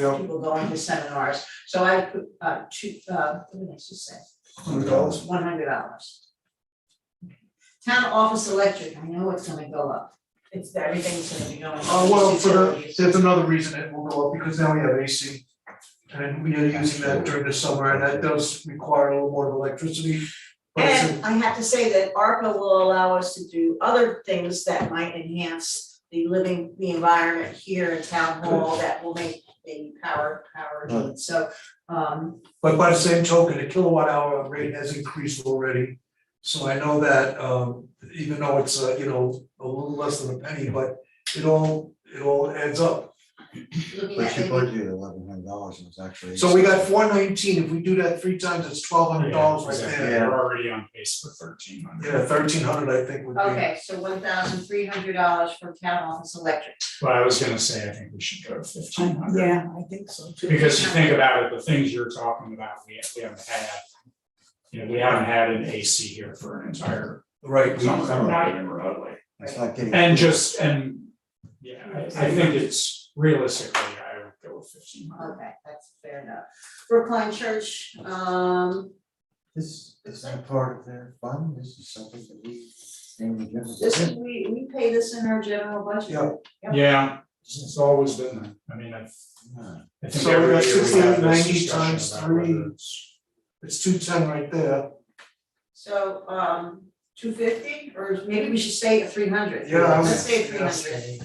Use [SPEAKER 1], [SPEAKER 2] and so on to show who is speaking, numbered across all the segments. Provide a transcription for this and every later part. [SPEAKER 1] Yeah.
[SPEAKER 2] people going to seminars. So I put uh two, uh, what did I just say?
[SPEAKER 1] hundred dollars.
[SPEAKER 2] One hundred dollars. Town office electric, I know it's gonna go up. It's, everything's gonna be going up.
[SPEAKER 1] Uh, well, for the,
[SPEAKER 2] Utilities.
[SPEAKER 1] that's another reason it will go up, because now we have AC. And we are using that during the summer, and that does require a little more of electricity. But it's a-
[SPEAKER 2] And I have to say that ARPA will allow us to do other things that might enhance the living, the environment here in town hall that will make the power, power need, so, um,
[SPEAKER 1] but by the same token, the kilowatt hour rate has increased already. So I know that, um, even though it's, uh, you know, a little less than a penny, but it all, it all adds up.
[SPEAKER 2] looking
[SPEAKER 3] But
[SPEAKER 2] at
[SPEAKER 3] she
[SPEAKER 2] maybe
[SPEAKER 3] budgeted eleven hundred dollars and it's actually.
[SPEAKER 1] So we got four nineteen, if we do that three times, it's twelve hundred dollars right
[SPEAKER 4] Yeah,
[SPEAKER 1] there.
[SPEAKER 3] Yeah.
[SPEAKER 4] We're already on pace for thirteen hundred.
[SPEAKER 1] Yeah, thirteen hundred, I think would be.
[SPEAKER 2] Okay, so one thousand three hundred dollars for town office electric.
[SPEAKER 4] But I was gonna say, I think we should go to fifteen hundred.
[SPEAKER 5] Yeah, I think so too.
[SPEAKER 4] Because you think about it, the things you're talking about, we we haven't had. You know, we haven't had an AC here for an entire
[SPEAKER 1] Right, we-
[SPEAKER 4] summer, not even remotely.
[SPEAKER 3] It's not getting.
[SPEAKER 4] And just, and, yeah, I I think it's realistically, I would go with fifteen hundred.
[SPEAKER 2] Okay, that's fair enough. Brookline Church, um,
[SPEAKER 3] This is not part of their fund, this is something that we. in the general-
[SPEAKER 2] this, we, we pay this in our general budget.
[SPEAKER 1] Yeah.
[SPEAKER 2] Yep.
[SPEAKER 4] Yeah, it's always been that. I mean, I've,
[SPEAKER 3] Yeah.
[SPEAKER 4] I think
[SPEAKER 1] So we
[SPEAKER 4] every
[SPEAKER 1] got
[SPEAKER 4] year we have
[SPEAKER 1] 1690
[SPEAKER 4] this discussion
[SPEAKER 1] times
[SPEAKER 4] about whether
[SPEAKER 1] three.
[SPEAKER 4] it's-
[SPEAKER 1] it's two ten right there.
[SPEAKER 2] So, um, two fifty, or maybe we should stay at three hundred.
[SPEAKER 1] Yeah, I
[SPEAKER 2] Let's
[SPEAKER 1] was.
[SPEAKER 2] stay at three hundred.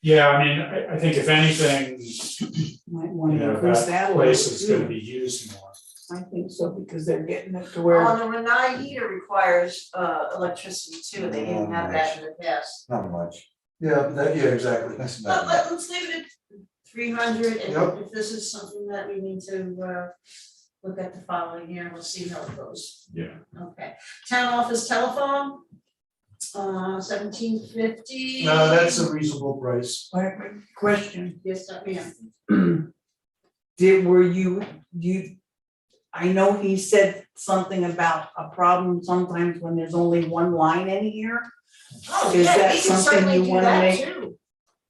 [SPEAKER 4] Yeah, I mean, I I think if anything,
[SPEAKER 5] Might
[SPEAKER 4] you
[SPEAKER 5] wanna
[SPEAKER 4] know,
[SPEAKER 5] increase
[SPEAKER 4] that
[SPEAKER 5] that a
[SPEAKER 4] place
[SPEAKER 5] little
[SPEAKER 4] is gonna
[SPEAKER 5] too.
[SPEAKER 4] be used more.
[SPEAKER 5] I think so, because they're getting it to
[SPEAKER 2] Well,
[SPEAKER 5] where,
[SPEAKER 2] and the Renai heater requires, uh, electricity too,
[SPEAKER 1] Oh,
[SPEAKER 2] they didn't have that in the past.
[SPEAKER 3] Not much,
[SPEAKER 1] Yeah, that, yeah, exactly.
[SPEAKER 3] that's
[SPEAKER 2] But,
[SPEAKER 3] not,
[SPEAKER 2] let let's leave it at three hundred,
[SPEAKER 1] Yep.
[SPEAKER 2] and if this is something that we need to, uh, look at the following year, we'll see how it goes.
[SPEAKER 4] Yeah.
[SPEAKER 2] Okay, town office telephone, uh, seventeen fifty.
[SPEAKER 1] No, that's a reasonable price.
[SPEAKER 5] Wait, wait, question,
[SPEAKER 2] Yes, I am.
[SPEAKER 5] did, were you, you, I know he said something about a problem sometimes when there's only one line in here.
[SPEAKER 2] Oh,
[SPEAKER 5] Is
[SPEAKER 2] yeah,
[SPEAKER 5] that
[SPEAKER 2] we can
[SPEAKER 5] something
[SPEAKER 2] certainly
[SPEAKER 5] you
[SPEAKER 2] do
[SPEAKER 5] wanna
[SPEAKER 2] that
[SPEAKER 5] make?
[SPEAKER 2] too.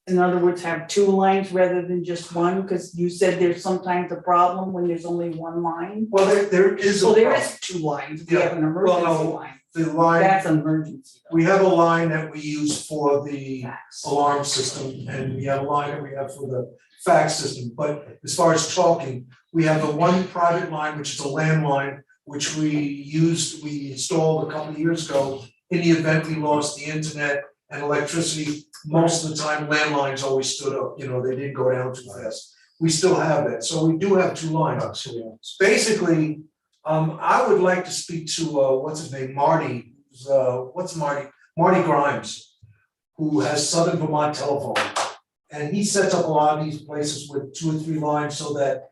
[SPEAKER 5] In other words, have two lines rather than just one, because you said there's sometimes a problem when there's only one line.
[SPEAKER 1] Well, there, there is a.
[SPEAKER 5] Well, there is two lines, we have an
[SPEAKER 1] Well,
[SPEAKER 5] emergency
[SPEAKER 1] no,
[SPEAKER 5] line,
[SPEAKER 1] The line,
[SPEAKER 5] that's an emergency though.
[SPEAKER 1] we have a line that we use for the
[SPEAKER 5] Fax.
[SPEAKER 1] alarm system and we have a line that we have for the fax system. But as far as talking, we have the one private line, which is a landline, which we used, we installed a couple of years ago. In the event we lost the internet and electricity, most of the time landlines always stood up, you know, they didn't go down too fast. We still have that, so we do have two lines. basically, um, I would like to speak to, uh, what's his name, Marty, who's, uh, what's Marty? Marty Grimes, who has Southern Vermont Telephone. And he sets up a lot of these places with two or three lines so that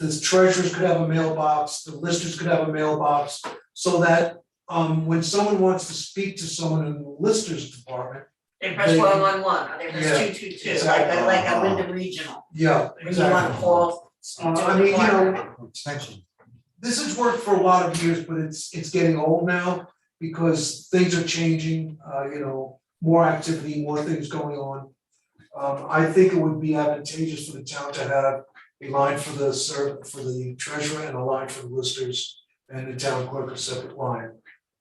[SPEAKER 1] the treasurers could have a mailbox, the listers could have a mailbox. So that, um, when someone wants to speak to someone in the listers department,
[SPEAKER 2] They press
[SPEAKER 1] They-
[SPEAKER 2] one one one, or they press Oh, two two two, like, a- like a
[SPEAKER 3] exactly.
[SPEAKER 2] Wyndham Regional,
[SPEAKER 1] yeah,
[SPEAKER 2] when you
[SPEAKER 1] exactly.
[SPEAKER 2] wanna call.
[SPEAKER 1] Uh, I mean, you know,
[SPEAKER 3] extension,
[SPEAKER 1] this has worked for a lot of years, but it's, it's getting old now because things are changing, uh, you know, more activity, more things going on. Um, I think it would be advantageous for the town to have a line for the serv for the treasurer and a line for the listers and the town clerk a separate line.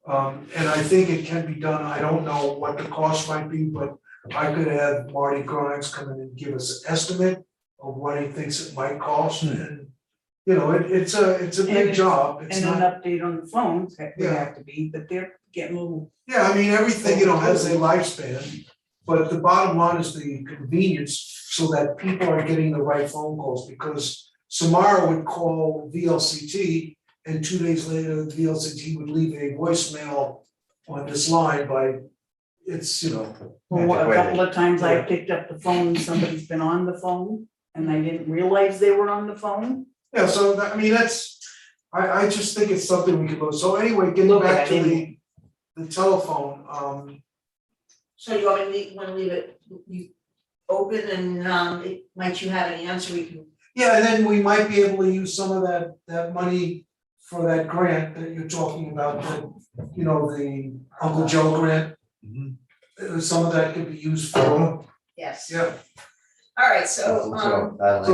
[SPEAKER 1] Um, and I think it can be done. I don't know what the cost might be, but I could have Marty Grimes come in and give us an estimate of what he thinks it might cost and, you know, it, it's a, it's a
[SPEAKER 5] And
[SPEAKER 1] big
[SPEAKER 5] it's-
[SPEAKER 1] job. It's
[SPEAKER 5] And
[SPEAKER 1] not.
[SPEAKER 5] an update on the phones, that would
[SPEAKER 1] Yeah.
[SPEAKER 5] have to be, but they're getting a little,
[SPEAKER 1] Yeah, I mean, everything, you know, has a lifespan, but the bottom line is the convenience so that people are getting the right phone calls because Samara would call VLCT and two days later, VLCT would leave a voicemail on this line by, it's, you know,
[SPEAKER 5] well, what- a
[SPEAKER 3] Antiquated.
[SPEAKER 5] couple of times I
[SPEAKER 1] Yeah.
[SPEAKER 5] picked up the phone, somebody's been on the phone, and I didn't realize they were on the phone.
[SPEAKER 1] yeah, so that, I mean, that's, I I just think it's something we could look, so anyway, getting
[SPEAKER 5] Look at
[SPEAKER 1] back to
[SPEAKER 5] it.
[SPEAKER 1] the the telephone, um,
[SPEAKER 2] So you wanna leave, wanna leave it, you open and, um, it- might you have an answer, we can,
[SPEAKER 1] Yeah, and then we might be able to use some of that, that money for that grant that you're talking about, the, you know, the Uncle Joe grant.
[SPEAKER 3] Mhm.
[SPEAKER 1] Uh, Some of that could be used for,
[SPEAKER 2] yes.
[SPEAKER 1] yeah.
[SPEAKER 2] All right, so, um.
[SPEAKER 3] I like
[SPEAKER 1] So